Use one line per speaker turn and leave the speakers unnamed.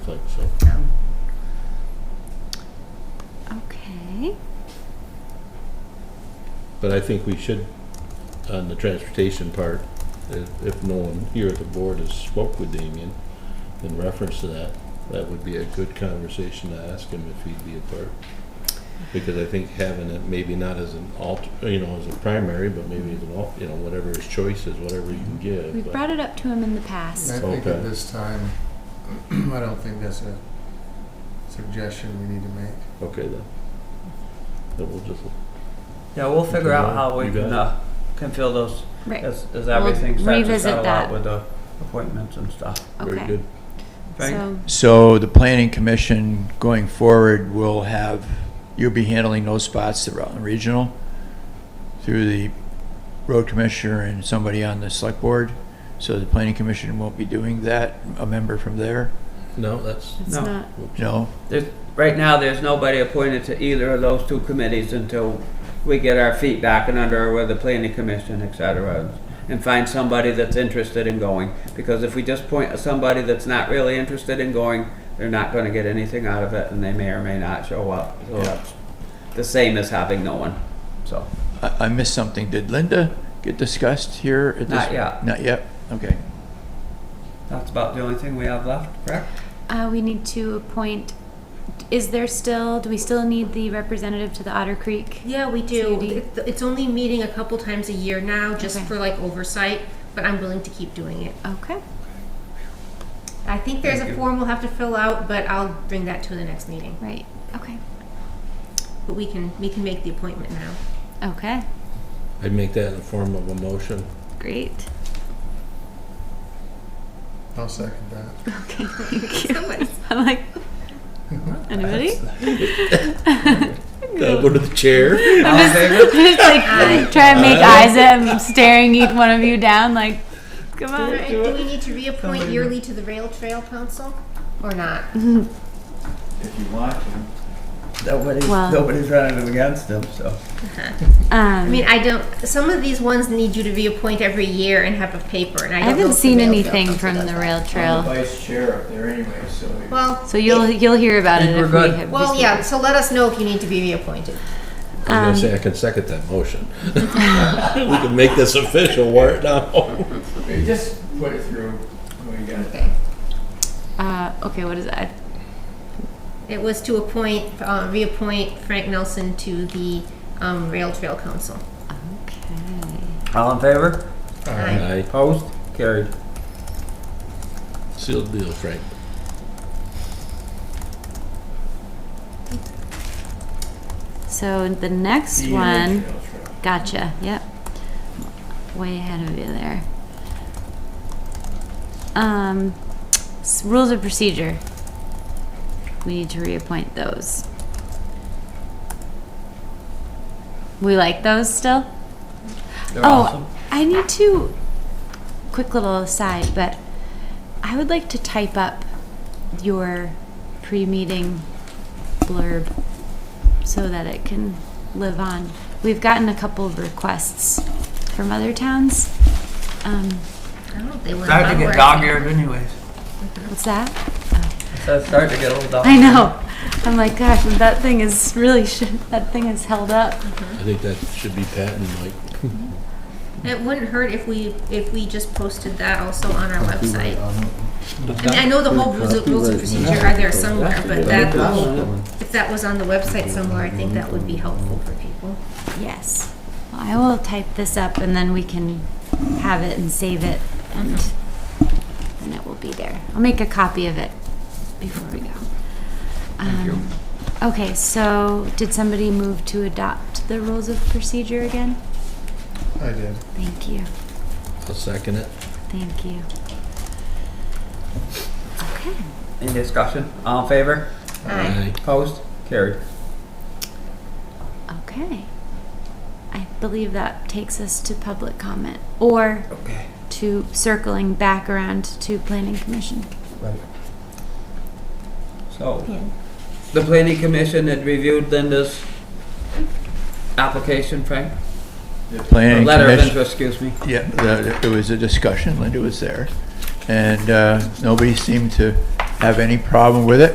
But I think we should, on the transportation part, if, if no one here at the board has spoke with Damien in reference to that, that would be a good conversation to ask him if he'd be a part. Because I think having it maybe not as an alt, you know, as a primary, but maybe as an al, you know, whatever his choice is, whatever you can give.
We've
but-
brought it up to him in the past.
I think
Okay.
at this time, I don't think that's a suggestion we need to make.
Okay, then. Then we'll just,
Yeah, we'll figure out how we
You
can,
got
uh, can fill those,
Right.
as, as
We'll
everything starts to
revisit
settle
that.
out with the appointments and stuff.
very
Okay.
good.
Right?
So,
So the planning commission going forward will have, you'll be handling those spots, the Rutland Regional, through the road commissioner and somebody on the select board. So the planning commission won't be doing that, a member from there,
No, that's,
it's
No.
not,
no?
Right now, there's nobody appointed to either of those two committees until we get our feet back and under with the planning commission, et cetera, and find somebody that's interested in going. Because if we just point at somebody that's not really interested in going, they're not gonna get anything out of it, and they may or may not show up. So
Yeah.
that's The same as having no one, so.
I, I missed something. Did Linda get discussed here at this?
Not yet.
Not yet, okay.
That's about the only thing we have left, correct?
uh, we need to appoint, is there still, do we still need the representative to the Otter Creek?
Yeah, we
So you
do.
do-
It- It's only meeting a couple times a year now, just
Okay.
for like oversight, but I'm willing to keep doing it.
Okay,
I think there's
Thank
a
you.
form we'll have to fill out, but I'll bring that to the next meeting.
right, okay,
But we can, we can make the appointment now.
okay,
I'd make that in the form of a motion.
great.
I'll second that.
Okay, thank you.
Somebody-
I'm like, anybody?
Gotta go to the chair.
All in favor?
Just like try and make eyes at him, staring each one of you down like, come
All
on.
right, Do we need to reappoint yearly to the Rail Trail Council or not?
If you want to.
Nobody's,
Well-
nobody's running against them, so.
Um,
I mean, I don't, some of these ones need you to reappoint every year and have a paper, and I
I
don't know
haven't
if the
seen
Rail Trail
anything
Council
from
does
the
that.
rail trail,
vice chair up there anyway, so.
Well.
so you'll
it-
you'll hear about it
Think we're
if we
good.
have.
Well,
just-
yeah, so let us know if you need to be reappointed.
I'm
Um,
gonna say I can second that motion. We can make this official, wear it now.
Just put it through when we got
Okay.
Uh, okay, what is that?
It was to appoint, uh, reappoint Frank Nelson to the, um, Rail Trail Council.
Okay.
All in favor?
Aye.
Aye,
Opposed? Carried.
sealed deal, Frank.
So the next one, gotcha. Yep. Way ahead of you there. Um, s- rules of procedure. We need to reappoint those. We like those still?
They're
Oh,
awesome.
I need to. Quick little aside, but I would like to type up your pre-meeting blurb so that it can live on. We've gotten a couple of requests from other towns. Um,
I don't think they went
Starting to get
backwards.
dog eared anyways.
what's that?
So it's starting to get a little dog.
I know. I'm like, gosh, that thing is really sh- that thing is held up.
I think that should be patent, Mike.
It wouldn't hurt if we, if we just posted that also on our website. I mean, I know the whole rules of, rules of procedure are there somewhere, but that, if that was on the website somewhere, I think that would be helpful for people.
Yes. Well, I will type this up and then we can have it and save it and and it will be there. I'll make a copy of it before we go. Thank you. Okay, so did somebody move to adopt the rules of procedure again?
I did.
Thank you.
I'll second it.
Thank you. Okay.
Any discussion? All in favor?
Aye.
Opposed? Carried.
Okay. I believe that takes us to public comment or
Okay.
to circling back around to planning commission.
So, the planning commission had reviewed Linda's application, Frank?
The planning
Letter of
commission,
interest, excuse me.
yeah, the- it was a discussion, Linda was there, and uh, nobody seemed to have any problem with it.